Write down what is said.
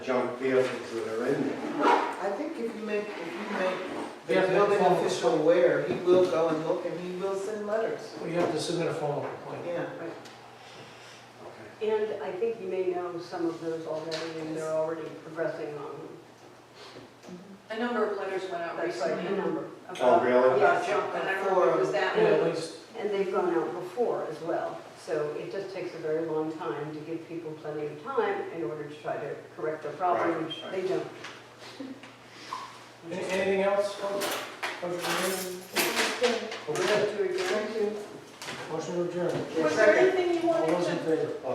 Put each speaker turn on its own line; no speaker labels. junk vehicles that are in there.
I think if you make, if you make
Yeah,
the
but
building
phone-
official aware, he will go and look and he will send letters.
Well, you have to submit a formal complaint.
Yeah.
Okay.
And I think you may know some of those already, and they're already progressing on them.
A number of letters went out
That's like a
recently
number.
Oh,
about
really?
about junk, and I don't remember if it was that
Yeah, at
many.
least,
And they've gone out before as well. So it just takes a very long time to give people plenty of time in order to try to correct their problem,
Right,
which
right.
they don't.
Any- anything else? folks? Motion to adjourn?
We're up to adjourn.
Motion to adjourn.
Was there anything you
All
wanted
those
to?
in favor?